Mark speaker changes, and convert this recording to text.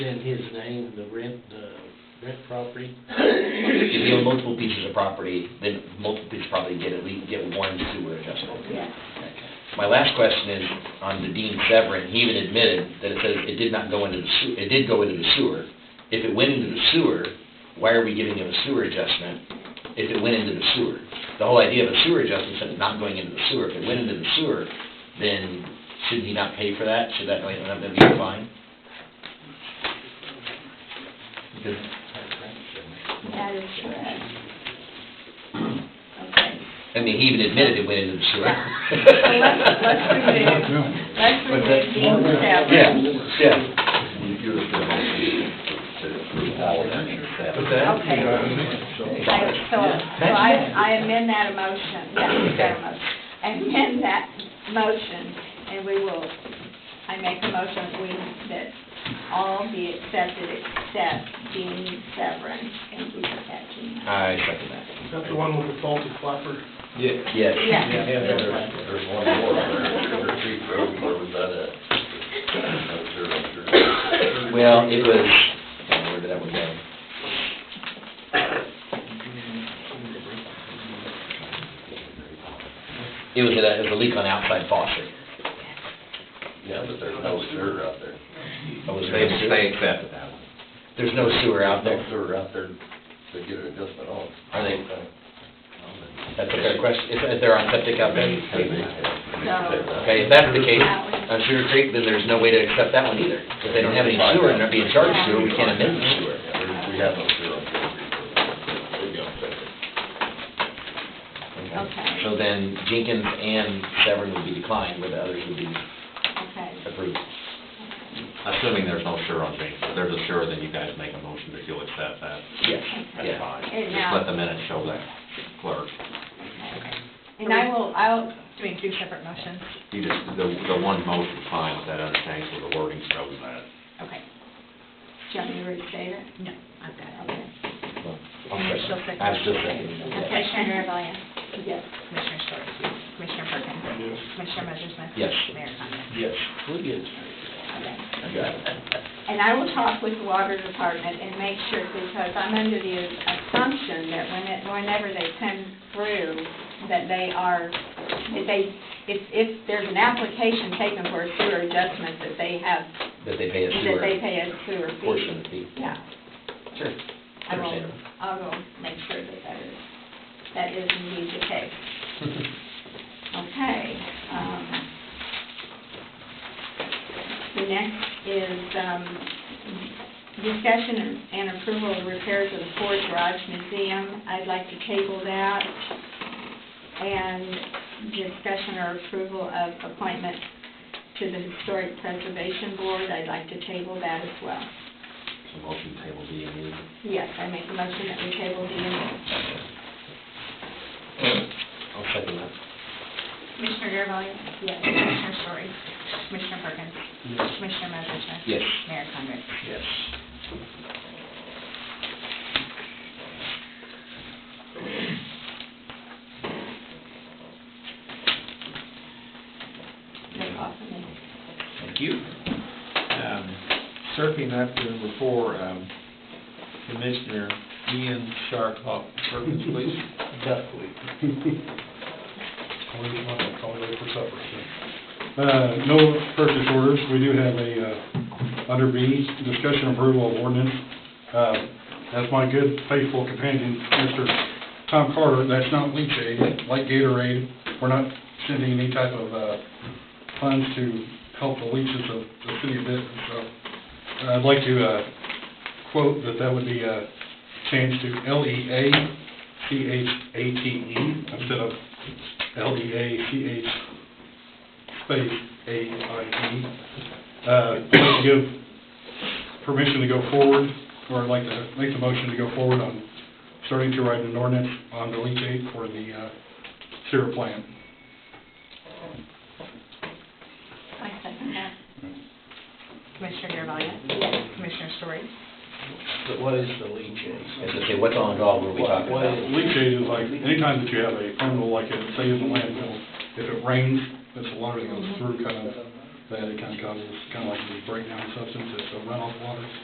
Speaker 1: in his name, the rent, the rent property.
Speaker 2: If you have multiple pieces of property, then multiple pieces probably get at least, get one sewer adjustment.
Speaker 1: Okay.
Speaker 2: My last question is on the Dean Severin, he even admitted that it says it did not go into the sewer, it did go into the sewer. If it went into the sewer, why are we giving him a sewer adjustment if it went into the sewer? The whole idea of a sewer adjustment said it's not going into the sewer. If it went into the sewer, then should he not pay for that? Should that, like, not be a fine? Because
Speaker 3: That is correct. Okay.
Speaker 2: I mean, he even admitted it went into the
Speaker 3: So
Speaker 2: sewer.
Speaker 3: let's, let's remove, let's
Speaker 2: But
Speaker 3: remove
Speaker 2: that-
Speaker 3: Dean
Speaker 2: Yeah,
Speaker 3: Severn.
Speaker 2: yeah.
Speaker 3: Okay. I- So, so I, I amend that motion, yeah, we got a motion. I amend that motion, and we will, I make a motion that we, that all be accepted except Dean Severn. Thank you for catching that.
Speaker 2: I second that.
Speaker 4: Is that the one with the faulty clapper?
Speaker 2: Yes.
Speaker 3: Yeah.
Speaker 5: There's one more, there, there Creek Road, where was that at? Not sure, not sure.
Speaker 2: Well, it was, oh, where did that one go? It was a, it was a leak on outside faucet.
Speaker 5: Yeah, but there's no sewer out there.
Speaker 2: Oh, was there no sewer?
Speaker 6: accepted that one.
Speaker 2: There's no sewer out
Speaker 5: No
Speaker 2: there.
Speaker 5: sewer out there to get an adjustment on.
Speaker 2: Are they- That's a fair question. Is, is there on septic out there? Okay, if that's the case, on Sugar Creek, then there's no way to accept that one either. If they don't have any sewer and they're being charged sewer, we can't amend the sewer.
Speaker 5: We have no sewer on Creek Road. We don't take it.
Speaker 3: Okay.
Speaker 2: So then Jenkins and Severn would be declined, where the others would be
Speaker 3: Okay.
Speaker 2: approved.
Speaker 6: Assuming there's no sure on James, if there's a sure, then you guys make a motion that you'll accept that.
Speaker 2: Yes,
Speaker 6: That's
Speaker 2: yeah.
Speaker 6: fine.
Speaker 3: And
Speaker 6: Just
Speaker 3: now-
Speaker 6: let the minutes show that, clerk.
Speaker 3: And I will, I'll,
Speaker 7: Doing two separate motions.
Speaker 6: You just, the, the one motion is fine, but that other change where the wording shows that.
Speaker 3: okay. Do you want me to restate it?
Speaker 7: No, I've got it.
Speaker 3: Okay.
Speaker 2: Well,
Speaker 7: And
Speaker 2: I'm
Speaker 7: you're still second.
Speaker 2: I'm still second.
Speaker 7: Okay.
Speaker 3: Commissioner Rebellion? Yes.
Speaker 7: Commissioner Story, Commissioner Perkins, Commissioner Messersmith.
Speaker 2: Yes.
Speaker 7: Mayor Condon.
Speaker 2: Yes,
Speaker 1: We'll get it.
Speaker 3: Okay.
Speaker 2: I got it.
Speaker 3: And I will talk with the water department and make sure, because I'm under the assumption that when it, whenever they come through, that they are, that they, if, if there's an application taken for a sewer adjustment, that they have,
Speaker 2: That they pay a
Speaker 3: that they
Speaker 2: sewer
Speaker 3: pay a sewer fee.
Speaker 2: portion of the fee.
Speaker 3: Yeah.
Speaker 2: Sure.
Speaker 3: I will,
Speaker 2: Understandable.
Speaker 3: I will make sure that that is, that is indeed the case. Okay, um, the next is, um, discussion and approval of repairs of the Ford Garage Museum. I'd like to table that. And discussion or approval of appointment to the Historic Preservation Board, I'd like to table that as well.
Speaker 6: So motion table D and E.
Speaker 3: Yes, I make a motion that we table D and E.
Speaker 2: I'll second that.
Speaker 7: Commissioner Garvelia?
Speaker 3: Yes.
Speaker 7: Commissioner Story, Commissioner Perkins, Commissioner Messersmith.
Speaker 2: Yes.
Speaker 7: Mayor Condon.
Speaker 2: Yes.
Speaker 3: That's all for me.
Speaker 2: Thank you.
Speaker 8: um, circling up to number four, um, Commissioner Ian Sharpop, Perkins, please.
Speaker 4: Definitely. Call it, I'll call it for supper.
Speaker 9: Uh, No purchase orders. We do have a, uh, under B, discussion approval of ordinance. Uh, As my good faithful companion, Mr. Tom Carter, that's not leach aid, like Gatorade. We're not sending any type of uh, funds to help the leaches of the city of Benton. So uh, I'd like to uh, quote that that would be uh, changed to E L-E-A-C-H-A-T-E E instead of E L-E-A-C-H space A-I-E, uh, to give permission to go forward, or I'd like to make the motion to go forward on starting to write an ordinance on the leachate for the uh, sewer plant.
Speaker 3: I second that.
Speaker 7: Commissioner Garvelia?
Speaker 3: Yes.
Speaker 7: Commissioner Story,
Speaker 1: But what is the leach
Speaker 2: As I say, what's on dog were we talking about?
Speaker 9: Leachate is like, anytime that you have a terminal like it, say in the landfill, if it rains, it's a water that goes through kind of, that it kind of causes, kind of like the breakdown of substance, it's a runoff water.